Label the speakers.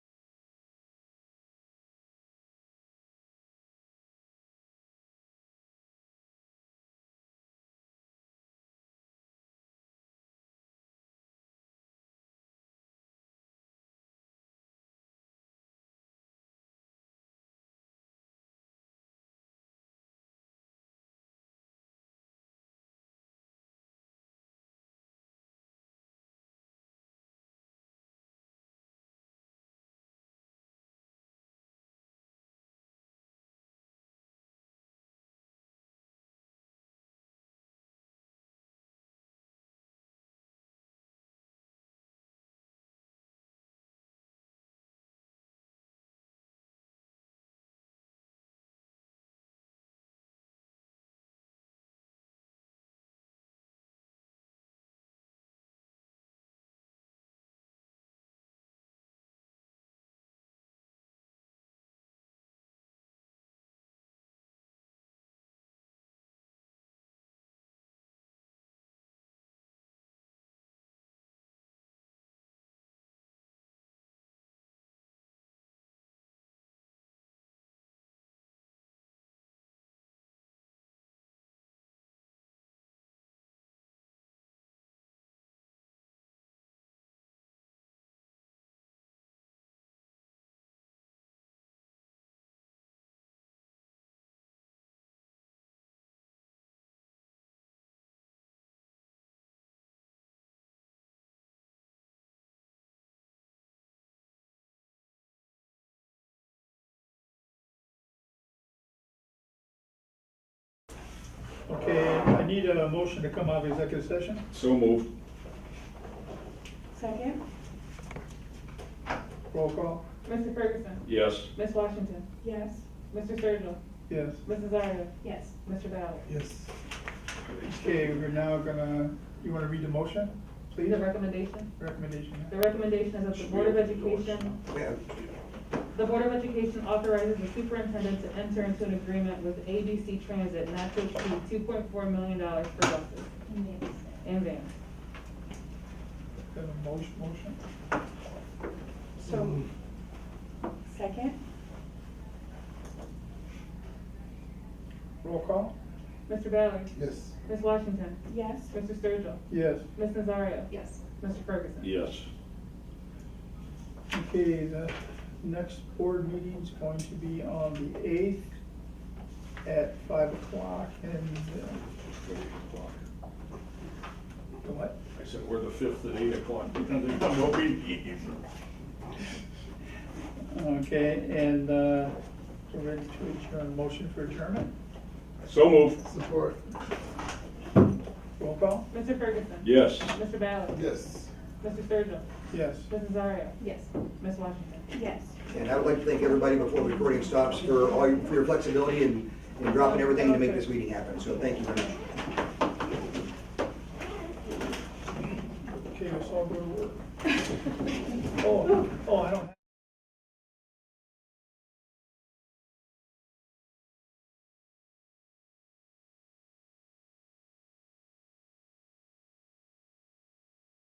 Speaker 1: Okay, I need a motion to come out of executive session.
Speaker 2: So moved.
Speaker 3: Second?
Speaker 1: Roll call,
Speaker 4: Mr. Ferguson.
Speaker 2: Yes.
Speaker 4: Ms. Washington.
Speaker 3: Yes.
Speaker 4: Mr. Sturgill.
Speaker 1: yes.
Speaker 4: Mrs. Zaria.
Speaker 3: Yes.
Speaker 4: Mr. Ballard.
Speaker 1: Yes. Okay, we're now gonna, you wanna read the motion, please?
Speaker 4: The recommendation.
Speaker 1: Recommendation.
Speaker 4: The recommendation is that the Board of Education, the Board of Education authorizes the superintendent to enter into an agreement with ABC Transit not to exceed two point four million dollars for buses and vans.
Speaker 1: Have a motion, motion,
Speaker 3: So, second?
Speaker 1: roll call,
Speaker 4: Mr. Ballard.
Speaker 5: Yes.
Speaker 4: Ms. Washington.
Speaker 3: Yes.
Speaker 4: Mr. Sturgill.
Speaker 1: yes.
Speaker 4: Mrs. Zaria.
Speaker 3: Yes.
Speaker 4: Mr. Ferguson.
Speaker 2: Yes.
Speaker 1: Okay, the next board meeting's going to be on the eighth at five o'clock and, uh, the what?
Speaker 2: I said, we're the fifth at eight o'clock. No meeting.
Speaker 1: Okay, and, uh, we're ready to adjourn, motion for adjournment,
Speaker 2: So moved.
Speaker 5: Support.
Speaker 1: roll call,
Speaker 4: Mr. Ferguson.
Speaker 2: Yes.
Speaker 4: Mr. Ballard.
Speaker 5: Yes.
Speaker 4: Mr. Sturgill.
Speaker 1: yes.
Speaker 4: Mrs. Zaria.
Speaker 3: Yes.
Speaker 4: Ms. Washington.
Speaker 3: Yes.
Speaker 6: And I would like to thank everybody before the recording stops for all your, for your flexibility and, and dropping everything to make this meeting happen. So thank you very much.
Speaker 1: Okay, let's all go to work. Oh, oh, I don't have.